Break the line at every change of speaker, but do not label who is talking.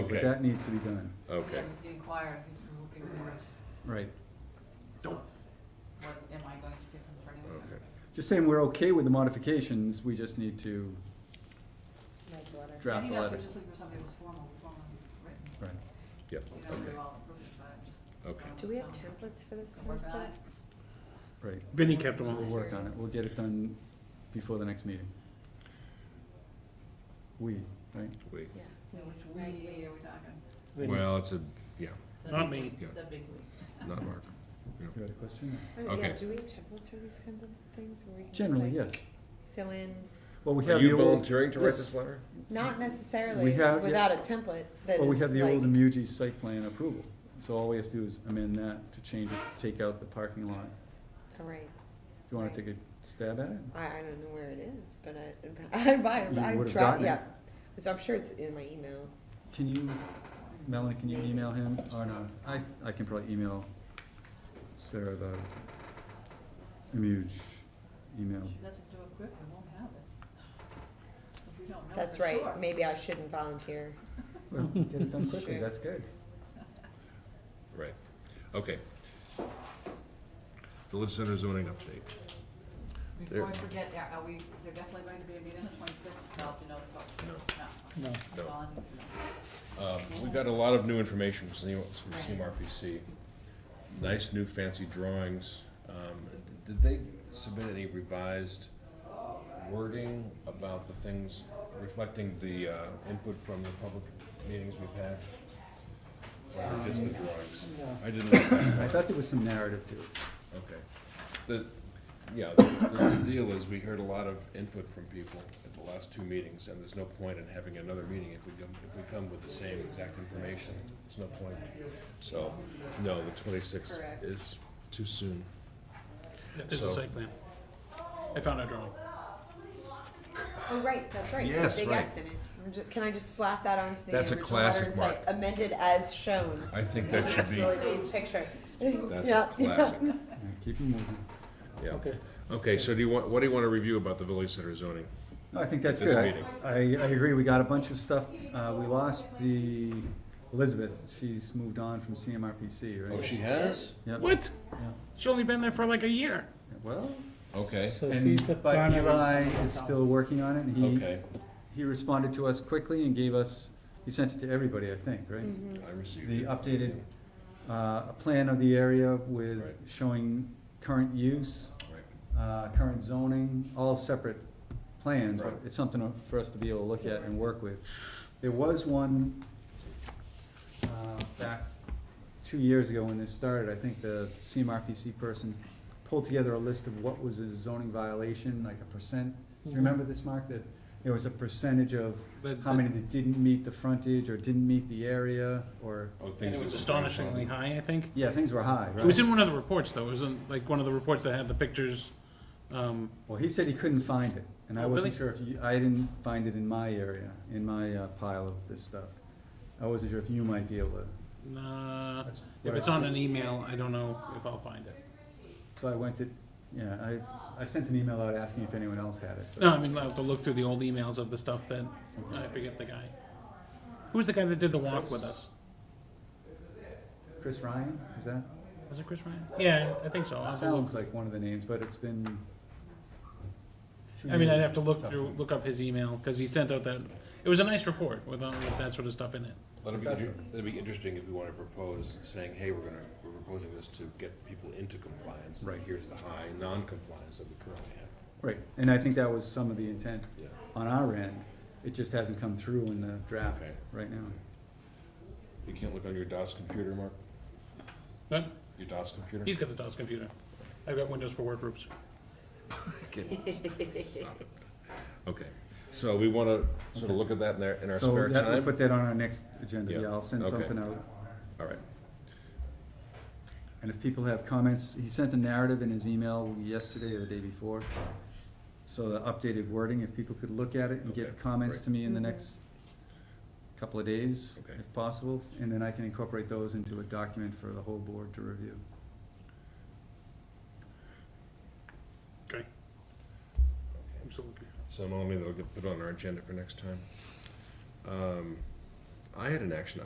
but
Okay.
that needs to be done,
Okay,
Inquire if he's looking for
right.
what am I going to give him for an answer?
okay.
Just saying we're okay with the modifications, we just need to
Nice letter.
draft the
And he knows
letter.
we're just looking for something that was formal, formally written,
Right.
Yep,
you know,
okay,
we're all approved, but just.
okay.
Do we have templates for this
So
kind
we're
of stuff?
not-
Right,
Vinny kept them
we'll
all.
work on it, we'll get it done before the next meeting. We, right?
Wait.
Yeah.
Yeah, Which we, are we talking?
Well, it's a, yeah,
Not me.
yeah,
The big we.
not Mark.
You had a question?
Oh, Yeah,
Okay.
do we have templates for these kinds of things where we can just
Generally,
like
yes.
fill in,
Well, we
Are
have the
you
old,
volunteering to write
yes.
this letter?
not
We
necessarily
have, yeah.
without a template that is like.
well, we have the old Amugi site plan approval, so all we have to do is amend that to change it, take out the parking lot.
Oh, right.
Do you wanna take a stab at it?
I, I don't know where it is, but I, I buy it,
You
I'm
would've
trying,
gotten it.
yeah. It's, I'm sure it's in my email.
Can you, Melanie, can you email him, or no, I, I can probably email Sarah the Amuge email.
She doesn't do it quick, we won't have it. If we don't know
That's
for
right,
sure.
maybe I shouldn't volunteer.
Well, get it done quickly,
Sure.
that's good.
Right, okay. The Liz Center zoning update.
Before I
There.
forget, are are we, is there definitely going to be a meeting on the twenty-sixth, so you know, folks?
No.
No.
No.
No.
Volunteer.
Um, we got a lot of new information from C- from CMRPC. Nice new fancy drawings. Um, did they submit any revised wording about the things reflecting the, uh, input from the public meetings we've had? Or just the drawings? I didn't look that
I
far.
thought there was some narrative to it.
Okay. The, yeah, the, the deal is, we heard a lot of input from people at the last two meetings, and there's no point in having another meeting if we come, if we come with the same exact information. There's no point. So, no, the twenty-sixth
Correct.
is too soon.
Yeah, There's a
So-
site plan. I found a drawing.
Oh, right, that's right.
Yes,
Big
right.
X in it. I'm ju- Can I just slap that onto the
That's a
original
classic,
letter and say
Mark.
amended as shown?
I think that should
That's
be,
really nice picture.
that's
Yeah,
a
yeah.
classic,
All right, Keep it moving.
yeah.
Okay.
Okay, so do you want, what do you wanna review about the village center zoning?
No, I think that's
This
good. I-
meeting.
I, I agree, we got a bunch of stuff, uh, we lost the Elizabeth, she's moved on from CMRPC, right?
Oh, she has?
Yep,
What?
yeah.
She's only been there for like a year.
Well,
Okay,
So
and,
she's at
but
Barnard.
Eli is still working on it, and he,
okay,
he responded to us quickly and gave us, he sent it to everybody, I think, right?
I received
The
it.
updated, uh, plan of the area with
Right.
showing current use,
Right.
uh, current zoning, all separate plans, but
Right.
it's something for us to be able to look at and work with. There was one, uh, back two years ago when this started, I think the CMRPC person pulled together a list of what was a zoning violation, like a percent. Do you remember this, Mark, that there was a percentage of
But
how
the-
many that didn't meet the frontage or didn't meet the area, or,
Oh, things
And
that
it
were
was astonishingly
grandfathered.
high, I think.
yeah, things were high,
It was
right?
in one of the reports, though. It was in like one of the reports that had the pictures. Um,
Well, he said he couldn't find it, and I
Oh,
wasn't
really?
sure if you, I didn't find it in my area, in my uh, pile of this stuff. I wasn't sure if you might be able to.
uh,
That's what
if
I
it's on
said.
an email, I don't know if I'll find it.
So I went to, yeah, I, I sent an email out asking if anyone else had it. but-
No, I mean, I'll have to look through the old emails of the stuff that, I forget the guy. Who was the guy that did the walk with us?
Chris Ryan, is that?
Was it Chris Ryan? Yeah, I think so. I'll have to look.
Sounds like one of the names, but it's been. two
I mean, I'd
years.
have to look
Tough
through,
to-
look up his email, cause he sent out that, it was a nice report with, all- with that sort of stuff in it.
That'd be,
That's-
inter- that'd be interesting if we wanna propose, saying, hey, we're gonna, we're proposing this to get people into compliance.
Right.
Here's the high non-compliance that we currently have.
Right, and I think that was some of the intent
Yeah.
on our end. It just hasn't come through in the draft
Okay.
right now.
You can't look on your DOS computer, Mark?
But
Your DOS computer?
he's got the DOS computer. I've got Windows for workgroups.
Stop it. Okay, so we wanna sort of look at that in our, in our
So
spare
that- we'll
time?
Put that on our next agenda,
Yeah,
yeah, I'll send
okay.
something out.
All right,
And if people have comments, he sent a narrative in his email yesterday or the day before. So the updated wording, if people could look at it and
Okay,
get comments
great.
to me in the
Mhm.
next couple of days,
Okay.
if possible, and then I can incorporate those into a document for the whole board to review.
Okay. Absolutely.
so Melanie, that'll get put on our agenda for next time. Um, I had an action